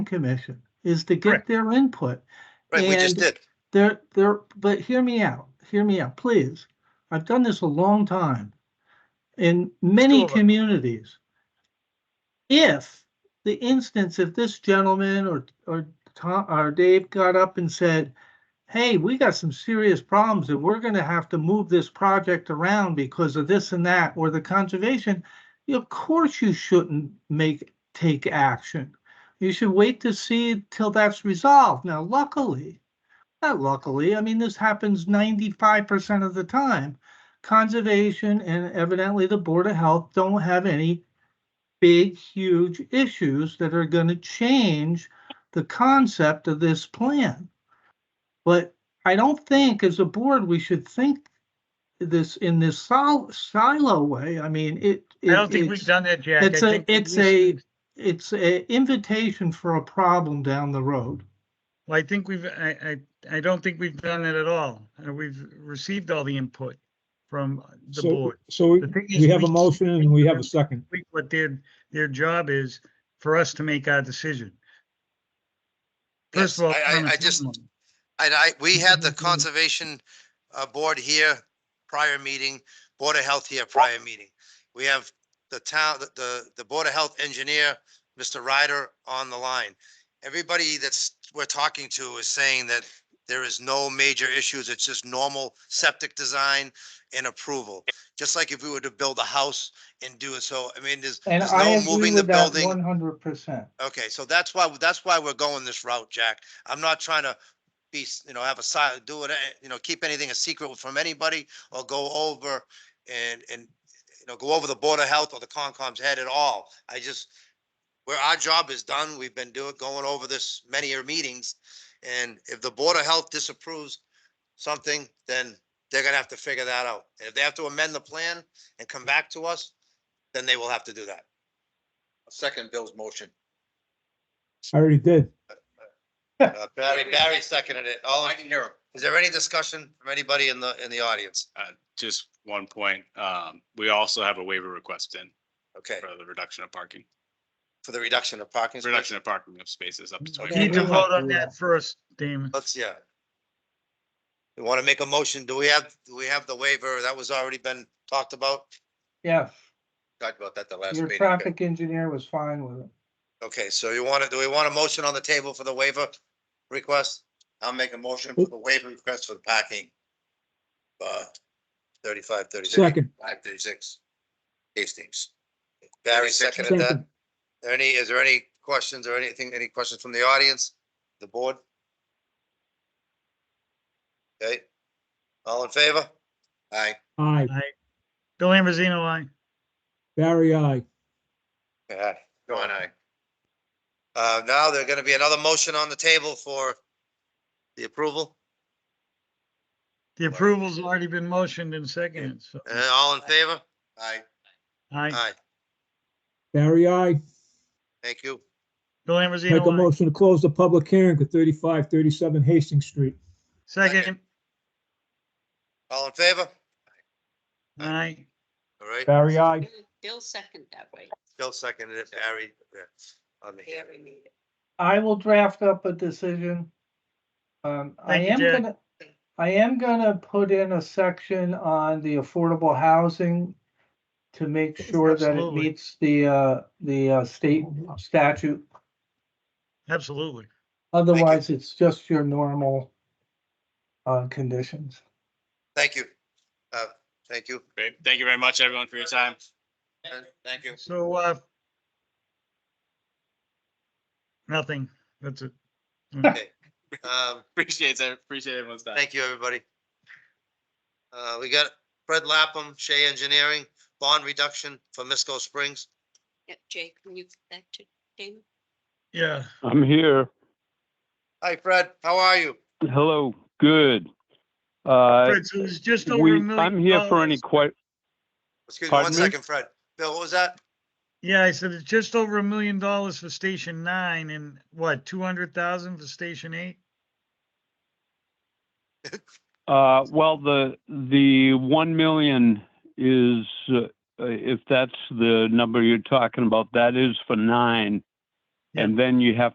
commission is to get Correct. their input. Right, we just And- did. There, there, but hear me out, hear me out, please. I've done this a long time in many Sure. communities. If the instance, if this gentleman or, or Tom, or Dave got up and said, hey, we got some serious problems and we're gonna have to move this project around because of this and that, or the conservation, of course you shouldn't make, take action. You should wait to see till that's resolved. Now luckily, not luckily, I mean, this happens ninety-five percent of the time. Conservation and evidently the Board of Health don't have any big, huge issues that are gonna change the concept of this plan. But I don't think as a board, we should think this in this sol- silo way. I mean, it. I don't it- think we've done that, Jack. I it's a- think that it's we a- should- It's a invitation for a problem down the road. Well, I think we've, I, I, I don't think we've done that at all. Uh, We've received all the input from the So, board. so we- The thing is, we have a we- motion and we have a second. We- What their, their job is for us to make our decision. First of all. Yes, I- I- on a I just- timeline. And I, we Mm-hmm, had the Mhm. conservation uh, board here prior meeting, Board of Health here prior meeting. We have the town, the- the, the Board of Health engineer, Mr. Ryder on the line. Everybody that's, we're talking to is saying that there is no major issues. It's just normal septic design and approval. Just like if we were to build a house and do it. So, I mean, there's, And there's I no agree moving the with that building. one hundred percent. Okay, so that's why, that's why we're going this route, Jack. I'm not trying to be, s- you know, have a side, do it, eh, you know, keep anything a secret from anybody or go over and, and, you know, go over the Board of Health or the Concom's head at all. I just, where our job is done, we've been doing, going over this many year meetings. And if the Board of Health disapproves something, then they're gonna have to figure that out. And if they have to amend the plan and come back to us, then they will have to do that. Second Bill's motion. I already did. Uh, Barry, Barry seconded it. All, I can hear him. Is there any discussion from anybody in the, in the audience? just one point, um, we also have a waiver request in Okay, for the reduction of parking, for the reduction of parking spaces? reduction of parking of spaces up to We Need twenty. to vote on that first, Damon. Let's, yeah. You want to make a motion? Do we have, do we have the waiver? That was already been talked about? Yes, Talked about that the last your traffic engineer was fine with it. Okay, so you want to, do we want a motion on the table for the waiver request? I'll make a motion for the waiver request for the parking. Uh, thirty-five, thirty-six. Second, Five thirty-six. Hastings. Barry seconded that. second. There Any, is there any questions or anything, any questions from the audience, the board? Okay, all in favor? Aye. Aye, Bill Ambrosino, aye. Barry, aye. Aye. Go on, aye. Uh, now there's gonna be another motion on the table for the approval, The approval's already been motioned and seconded, so, Uh, all in favor? Aye. aye. Aye, Barry, aye. thank you. Bill Make a Ambrosino, aye. motion to close the public hearing for thirty-five, thirty-seven Hastings Street. Second, All in favor? aye. All right, Barry, aye. Bill second that way. Bill seconded it, Barry, yeah, on the Very neat. I will draft up a decision. Um, I Thank you, am Jack. gonna, I am gonna put in a section on the affordable housing to make sure that it Absolutely. meets the, uh, the, uh, state statute. Absolutely. Otherwise, it's just your normal, uh, conditions. Thank you. Uh, thank you. Great, thank you very much, everyone, for your time. Uh, Thank you. So, uh, nothing, that's it. Um, Appreciate it, appreciate everyone's time. Thank you, everybody. Uh, we got Fred Lapham, Shea Engineering, bond reduction for Misco Springs. Yeah, Jake, can you, get that to Damon? Yeah, I'm here. Hi, Fred, how are you? Hello, good. Uh, Fred, so it was just over we, a million. I'm here for any dollars. que, Excuse me one Pardon me? second, Fred. Bill, what was that? Yeah, I said it's just over a million dollars for Station Nine and what, two hundred thousand for Station Eight? uh, well, the, the 1 million is, uh, if that's the number you're talking about, that is for nine. Yeah. And then you have